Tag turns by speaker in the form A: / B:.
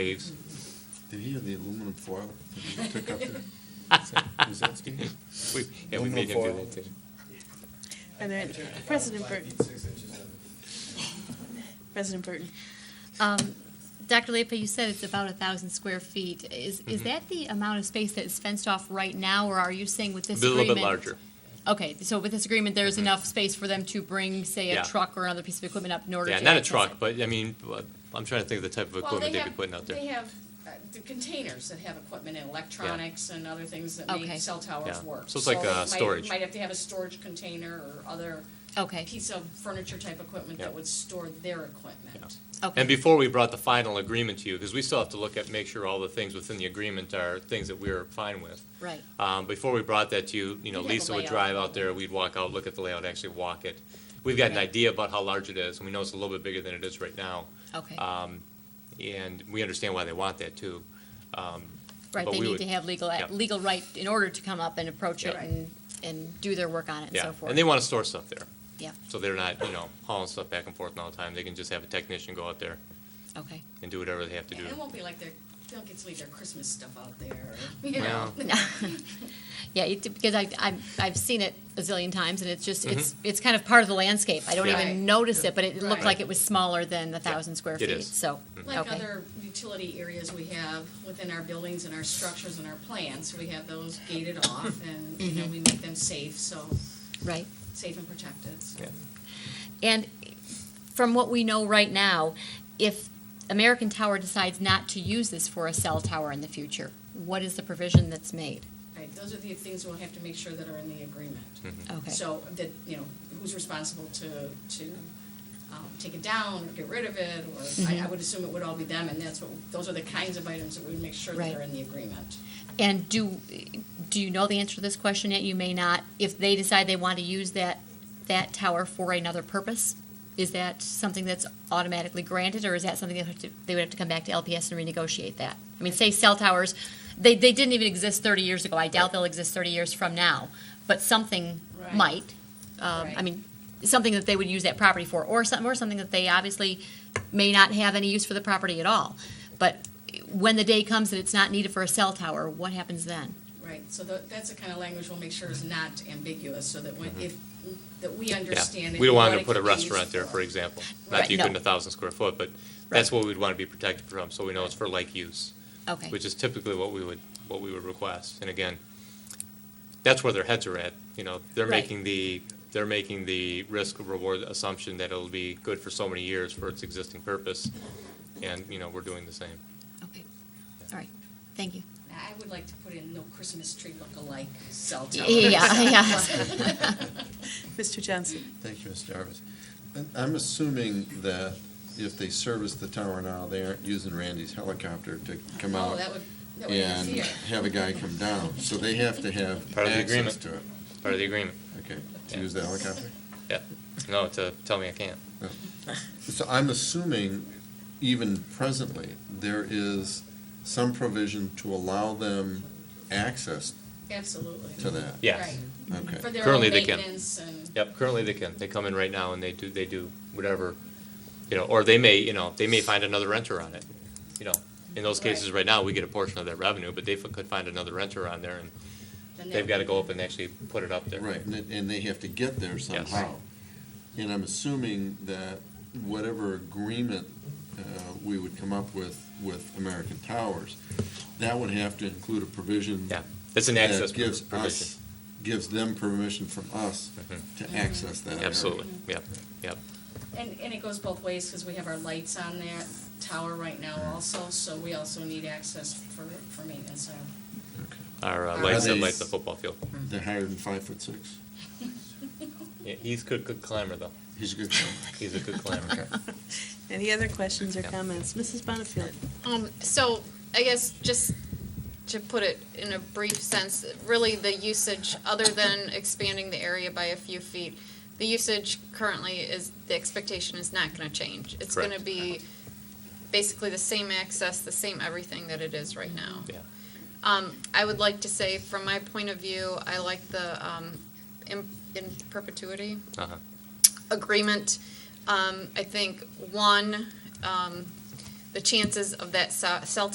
A: Graves.
B: Did he have the aluminum foil that he took up there? Was that Steve?
A: We- Yeah, we made him do that too.
C: And then President Burton, President Burton,
D: Um, Dr. Lepa, you said it's about a thousand square feet. Is,
A: Mm-hmm.
D: is that the amount of space that is fenced off right now, or are you saying with
A: A
D: this
A: little
D: agreement?
A: bit larger. Mm-hmm.
D: Okay, so with this agreement, there's enough space for them to bring, say,
A: Yeah.
D: a truck or another piece of equipment up in order to
A: Yeah, not a
D: access
A: truck,
D: it?
A: but I mean, uh, I'm trying to think of the type of
E: Well,
A: equipment
E: they
A: they'd be
E: have-
A: putting out
E: They
A: there.
E: have uh, the containers that have equipment and electronics and other things that make
D: Okay.
E: cell towers
A: Yeah.
E: work.
A: So it's like, uh,
E: it might-
A: storage.
E: Might have to have a storage container or other
D: Okay,
E: piece of furniture type equipment
A: Yeah.
E: that would store their equipment.
D: okay.
A: And before we brought the final agreement to you, because we still have to look at, make sure all the things within the agreement are things that we're fine with.
D: Right,
A: Um, before we brought that to you, you know,
E: You'd have a
A: Lisa would
E: layout.
A: drive out there, we'd walk out, look at the layout, actually walk it. We've got an
D: Okay.
A: idea about how large it is, and we know it's a little bit bigger than it is right now.
D: okay.
A: Um, and we understand why they want that too. Um,
D: Right,
A: but
D: they
A: we
D: need
A: would-
D: to have legal, a-
A: yeah.
D: legal right in order to come up and approach it
A: Yeah.
D: and, and do their work on it and
A: yeah,
D: so forth.
A: and they wanna store stuff there.
D: Yeah,
A: So they're not, you know, hauling stuff back and forth all the time. They can just have a technician go out there
D: okay.
A: and do whatever they have to do.
E: And it won't be like they're, they'll get to leave their Christmas stuff out there, or, you
A: Well,
E: know.
D: Yeah, it, because I, I'm, I've seen it a zillion times, and it's just, it's, it's kind of part of the landscape. I don't
A: Mm-hmm. Yeah.
E: Right.
D: even notice it, but it looked
E: Right.
D: like it was smaller than the thousand square
A: It
D: feet,
A: is. Mm-hmm.
D: so,
E: Like
D: okay.
E: other utility areas we have within our buildings and our structures and our plants, we have those gated off and, you
A: Mm-hmm.
E: know, we make them safe, so,
D: Right.
E: safe and protected, so.
A: Yeah.
D: And from what we know right now, if American Tower decides not to use this for a cell tower in the future, what is the provision that's made?
E: Right, those are the things we'll have to make sure that are in the agreement.
A: Mm-hmm.
D: Okay,
E: So that, you know, who's responsible to, to um, take it down or get rid of it, or I- I
D: Mm-hmm.
E: would assume it would all be them, and that's what, those are the kinds of items that we make sure that
D: Right.
E: are in the agreement.
D: and do, do you know the answer to this question yet? You may not. If they decide they want to use that, that tower for another purpose, is that something that's automatically granted, or is that something they have to, they would have to come back to LPS and renegotiate that? I mean, say cell towers, they, they didn't even exist thirty years ago. I doubt they'll exist thirty years from now, but something
E: Right.
D: might. um, I
E: Right.
D: mean, something that they would use that property for, or something, or something that they obviously may not have any use for the property at all. But when the day comes that it's not needed for a cell tower, what happens then?
E: Right, so tha- that's the kind of language we'll make sure is not ambiguous, so that when, if, that we understand. it
A: Mm-hmm. We don't
E: and
A: want
E: what
A: to put a
E: can be used
A: restaurant there, for example. Not
D: Right,
A: to equal
D: no.
A: a thousand square foot, but that's what we'd want to be protected from, so we know it's for like use,
D: Okay,
A: which is typically what we would, what we would request. And again, that's where their heads are at, you know, they're
D: Right.
A: making the, they're making the risk reward assumption that it'll be good for so many years for its existing purpose. And, you know, we're doing the same.
D: okay, all right, thank you.
E: Now, I would like to put in no Christmas tree look-alike cell
D: Yeah,
E: tower.
D: yeah,
C: Mr. Johnson.
B: Thank you, Ms. Jarvis. And I'm assuming that if they service the tower now, they aren't using Randy's helicopter to come
E: Oh,
B: out
E: that would, that would
B: and
E: be easier.
B: have a guy come down. So they have to have
A: Part of the
B: access
A: agreement.
B: to it.
A: Part of the agreement.
B: Okay, to
A: Yeah.
B: use the helicopter?
A: Yeah. No, to tell me I can't.
B: So I'm assuming even presently, there is some provision to allow them access
E: Absolutely.
B: to that.
A: Yes.
E: Right. For
B: Okay,
E: their own
A: Currently, they can.
E: maintenance and.
A: Yep, currently they can. They come in right now and they do, they do whatever, you know, or they may, you know, they may find another renter on it. You know, in those cases,
E: Right.
A: right now, we get a portion of that revenue, but they f- could find another renter on there and
E: then
A: they've
E: that-
A: got to go up and actually put it up there.
B: right, and, it- and they have to get there somehow. And I'm assuming that whatever agreement, uh, we would come up with, with American Towers, that would have to include a provision
A: Yeah, it's an access
B: that
A: pro-
B: gives
A: provision.
B: us, gives them permission from us to access that area.
A: Mm-hmm. Absolutely, yep, yep.
E: Mm-hmm. And, and it goes both ways, because we have our lights on that tower right now also, so we also need access for, for maintenance. so.
B: Okay.
A: Our uh,
E: Are
A: lights that
B: these-
A: light the football field.
B: They're higher than five foot six?
A: Yeah, he's good, good climber though.
B: He's a good guy.
A: He's a good climber.
C: Any other questions or
A: Yeah.
C: comments? Mrs. Bonnefield.
F: Um, so I guess just to put it in a brief sense, really the usage, other than expanding the area by a few feet, the usage currently is, the expectation is not gonna change. It's gonna
A: Correct.
F: be basically the same access, the same everything that it is right now.
A: Yeah.
F: Um, I would like to say, from my point of view, I like the, um, in, in perpetuity
A: Uh-huh.
F: agreement. Um, I think, one, um, the chances of that cell cell